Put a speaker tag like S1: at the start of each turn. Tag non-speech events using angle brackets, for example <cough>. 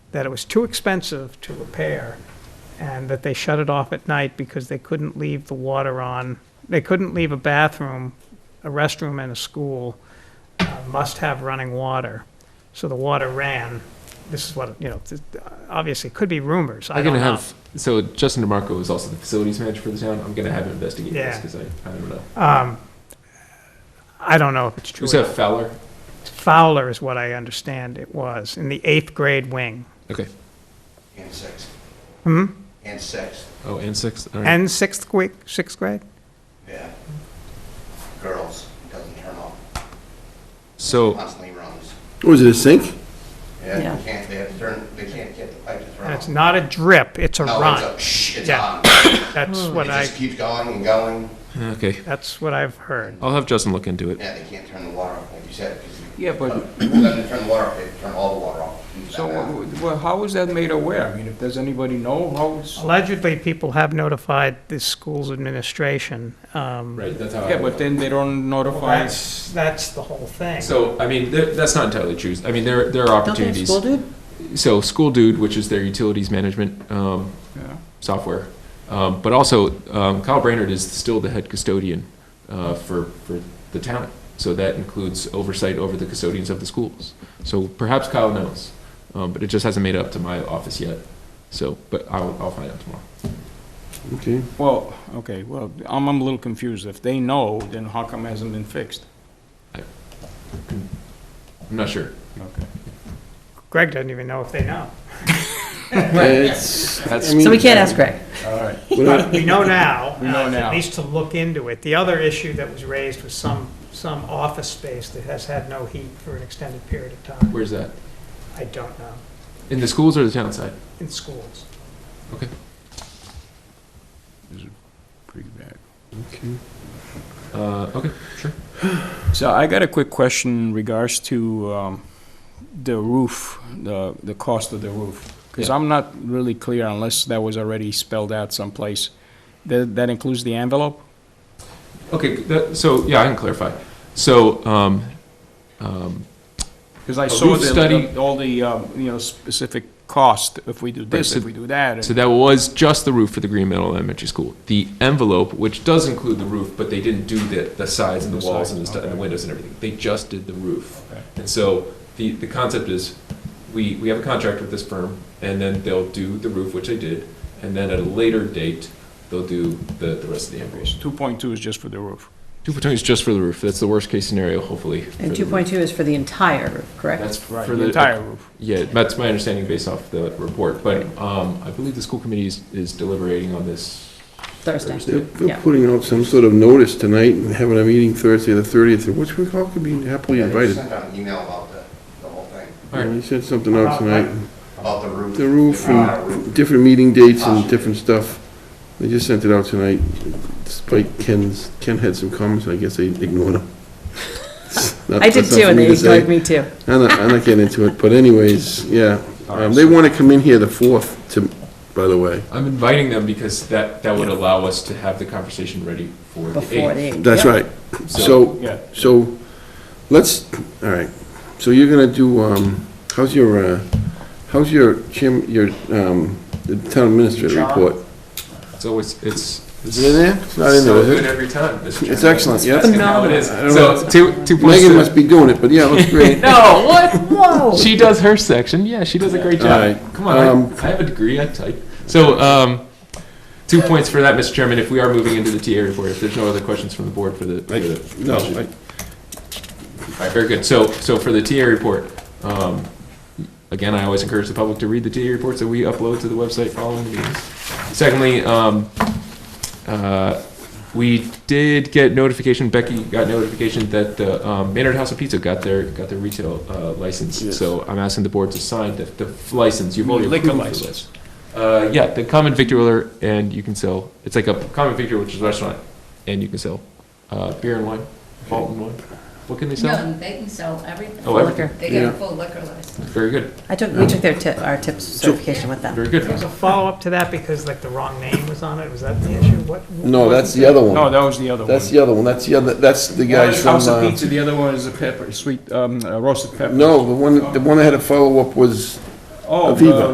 S1: that it was too expensive to repair and that they shut it off at night because they couldn't leave the water on. They couldn't leave a bathroom, a restroom and a school uh, must have running water. So the water ran. This is what, you know, th- obviously it could be rumors. I
S2: I'm
S1: don't
S2: gonna
S1: know.
S2: have so Justin DeMarco is also the facilities manager for the town. I'm gonna have him investigate this
S1: Yeah.
S2: because I, I don't know.
S1: I don't know if it's true.
S2: Was
S1: or
S2: that
S1: not.
S2: Fowler?
S1: Fowler is what I understand it was, in the eighth grade wing.
S2: Okay.
S3: And six.
S1: Mm-hmm.
S3: Hmm? And six,
S2: Oh, and six. All right.
S1: And sixth grade, sixth grade?
S3: yeah. Girls, doesn't turn off,
S4: Oh.
S2: so
S3: constantly runs.
S4: Was Oh, it a sink?
S3: Yeah,
S5: Yeah.
S3: they can't, they have to turn, they can't get the pipe to turn
S1: And it's
S3: off.
S1: not a drip, it's a
S3: No, it's
S1: run.
S3: a shh, it's
S1: Yeah.
S3: on. It
S1: That's
S2: Hmm.
S1: what I,
S3: just keeps going and going.
S2: okay,
S1: that's what I've heard.
S2: I'll have Justin look into it.
S3: Yeah, they can't turn the water off, like you said. 'cause you-
S6: Yeah, but-
S3: People doesn't turn the water off, they turn all the water off.
S6: So, uh, well, how was that made aware? I mean, if does anybody know how it's,
S1: Allegedly, people have notified the school's administration. um,
S2: Right. That's how. I
S6: yeah, but then they don't notify.
S1: That's, that's the whole thing.
S2: So I mean, th- that's not entirely true. I mean, there there are
S5: Don't they have
S2: opportunities.
S5: school dude?
S2: so School Dude, which is their utilities management um,
S6: Yeah.
S2: software, um, but also um, Kyle Brainerd is still the head custodian uh, for for the town. So that includes oversight over the custodians of the schools. So perhaps Kyle knows, um, but it just hasn't made up to my office yet. So, but I'll, I'll find out tomorrow.
S4: Okay.
S6: Well, okay, well, I'm, I'm a little confused. If they know, then how come it hasn't been fixed?
S2: I'm not sure.
S6: Okay.
S1: Greg doesn't even know if they know.
S4: It's,
S2: That's-
S4: I mean, um,
S5: So we can't ask Greg.
S6: All right.
S1: But we know now.
S6: <laughs> We know
S1: uh,
S6: now.
S1: At least to look into it. The other issue that was raised was some, some office space that has had no heat for an extended period of time.
S2: Where's that?
S1: I don't know,
S2: In the schools or the town side?
S1: in schools.
S2: Okay.
S6: Pretty bad.
S4: Okay.
S2: Uh, okay. Sure.
S6: So I got a quick question in regards to um, the roof, the, the cost of the roof. Because
S2: Yeah.
S6: I'm not really clear unless that was already spelled out someplace. That, that includes the envelope?
S2: Okay. That, so yeah, I can clarify. So um,
S6: Because I
S2: A
S6: saw
S2: roof
S6: the-
S2: study-
S6: the, all the, um, you know, specific cost, if we do this,
S2: so-
S6: if we do that. and-
S2: So that was just the roof for the Green Meadow Elementary School. The envelope, which does include the roof, but they didn't do the, the sides and the
S6: The
S2: walls
S6: sides,
S2: and the, stu- and the
S6: okay.
S2: windows and everything. They just did the roof.
S6: Okay.
S2: And so the, the concept is, we, we have a contract with this firm, and then they'll do the roof, which they did, and then at a later date, they'll do the, the rest of the envelope.
S6: 2.2 is just for the roof.
S2: Two point two is just for the roof. That's the worst case scenario, hopefully. for
S5: And
S2: the roof.
S5: 2.2 is for the entire roof, correct?
S2: That's for
S6: Right,
S2: the.
S6: the entire roof.
S2: Yeah, that's my understanding based off the report, but, um, I believe the school committee is, is deliberating on this
S5: Thursday.
S4: They're
S5: Yeah.
S4: they're putting out some sort of notice tonight and having a meeting Thursday, the 30th, which we all could be happily
S3: Yeah, they just
S4: invited.
S3: sent out an email about the, the whole thing,
S2: All right.
S4: They said something out tonight,
S3: about the roof.
S4: the roof
S3: amount of roof.
S4: and different meeting dates and different stuff. They just sent it out tonight despite Ken's, Ken had some comments, I guess they ignored him.
S5: <laughs> I did too, and they ignored me too.
S4: I'm not, I'm not getting into it, but anyways,
S5: <laughs>
S4: yeah. Um, They want to come in here the 4th to, by the way.
S2: I'm inviting them because that, that would allow us to have the conversation ready for the
S5: Before the
S2: 8th.
S5: 8th.
S4: That's
S5: Yep.
S4: right. So,
S6: Yeah.
S4: so, let's, all right, so you're gonna do, um, how's your, uh, how's your chim, your, um, the town administrator
S3: John?
S4: report?
S2: It's always, it's.
S4: Is it in there? It's not in there,
S2: So
S4: is
S2: good
S4: it?
S2: every time. Mr.
S4: It's
S2: Chairman.
S4: excellent, yeah.
S2: That's how it is.
S4: I don't
S2: So, two, two points.
S4: Megan
S2: to-
S4: must be doing it, but yeah, it looks great.
S2: <laughs>
S4: <laughs>
S2: No, what? Whoa. She does her section. Yeah, she does a great job.
S4: All right.
S2: Come on, I-
S4: Um,
S2: I have a degree. I type. So, um, two points for that, Mr. Chairman. If we are moving into the TA report, if there's no other questions from the board for the, for
S4: I-
S2: the
S4: No, I-
S2: All right, very good. So, so for the TA report, um, again, I always encourage the public to read the TA reports that we upload to the website following the meetings. Secondly, um, uh, we did get notification, Becky got notification that the um, Maynard House of Pizza got their, got their retail uh, license.
S4: Yes.
S2: So I'm asking the board to sign the, the license. You've already
S6: Liquor
S2: approved the
S6: license.
S2: license. Uh, yeah, the common victualler, and you can sell, it's like a common victualler, which is a restaurant, and you can sell uh, beer and wine, malt and wine. What can they sell?
S7: No, they can sell everything.
S2: Oh, everything.
S5: Liquor.
S7: They get
S4: Yeah.
S7: a full liquor license.
S2: Very good,
S5: I took, we took their tip, our tips certification with them.
S2: very good.
S1: There's a follow-up to that because like the wrong name was on it, was that the issue? What?
S4: no, that's the other
S6: No,
S4: one.
S6: that was the other one.
S4: Oh. That's the other one, that's the other, that's the
S6: One
S4: guys
S6: is
S4: from,
S6: House of
S4: uh,
S6: Pizza, the other one is the pepper, sweet, um, uh, roasted pepper.
S4: no, the one, the one that had a follow-up was
S6: Oh,
S4: Aviva.
S6: uh,